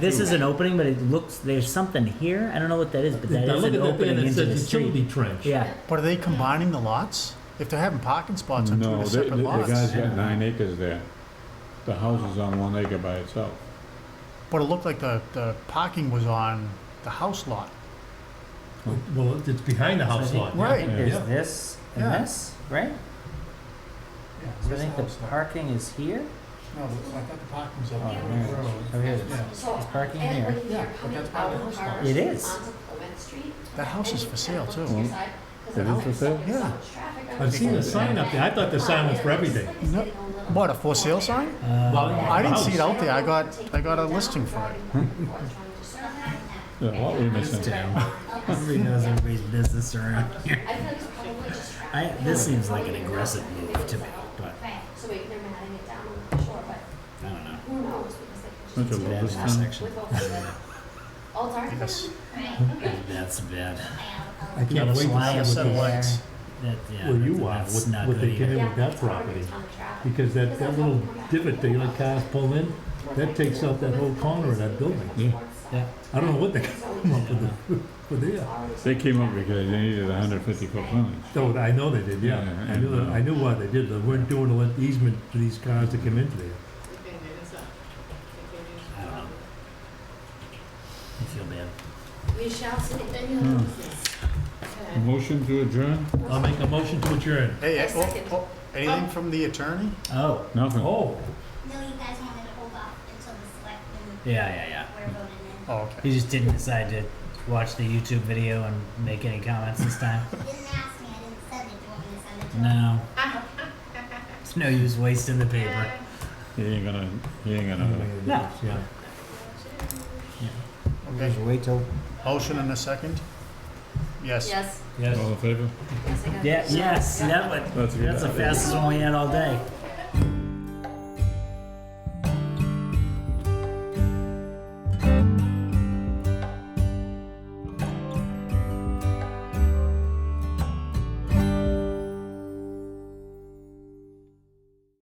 This is an opening, but it looks, there's something here. I don't know what that is, but that I is look an at that thing opening and it into the says street. utility trench. Yeah, But are they combining the lots? If they're having parking spots on two No, the, the separate the guy's lots? got nine acres there. The house is on one acre by itself. But it looked like the, the parking was on the house lot. Well, it's behind the So I house think- lot. I Right. think Yeah. there's this Yeah. and this, right? So I think the parking is here. No, I thought the parking was Uh, Oh, man. Oh, here it is. It's So, parking and here. when you're Yeah, but coming that's part of out the of house lot. Harvard It is. onto Clement Street, That house and is you for sale kinda go too. to your side, It 'cause the is house for is sale? so Yeah. much traffic on I've the seen a street. sign up there. I thought the sign was for everything. No, what, a for sale sign? Uh, Well, I didn't see it house. out there. I got, I got a listing for it. The lot we missing. Everybody knows everybody's business around here. I feel like it's probably just traffic. I, this seems like an aggressive move to me, but So maybe they're matting it down on the shore, but I don't know. who knows? because they Bunch can of just- Bad locust intersection. With all the, all dark. Yes. That's bad. I can't wait to see what they, lights. That, yeah, Where you that's- are, that's what- not what good they can either. do. with that property. because that, that little divot they let cars pull in, that takes up that whole corner of that building. Yeah. I don't know what they come up with, for there. They came up because they needed a hundred fifty foot frontage. No, I know they did, yeah. I knew, that- I knew why they did. They weren't doing an easement for these cars to come into there. I don't know. I feel bad. We shall see. Motion to adjourn? Hmm. I'll make a motion to adjourn. Hey, I oh, second. oh, anything from the attorney? Oh, Nothing. Oh, No, you guys wanted to hold off until the selectmen yeah, yeah, yeah. were voted in. Oh, okay. He just didn't decide to watch the YouTube video and make any comments this time. You didn't ask me, I didn't send it, do you want me to send it to No. them? It's no use wasting the paper. He ain't gonna, he ain't gonna. No. yeah. Okay. wait till. Motion and a second? Yes. Yes. Yes. All in favor? Yes, I got it. Yeah, yes, that one. That's a good That's the idea. fastest one we had all day.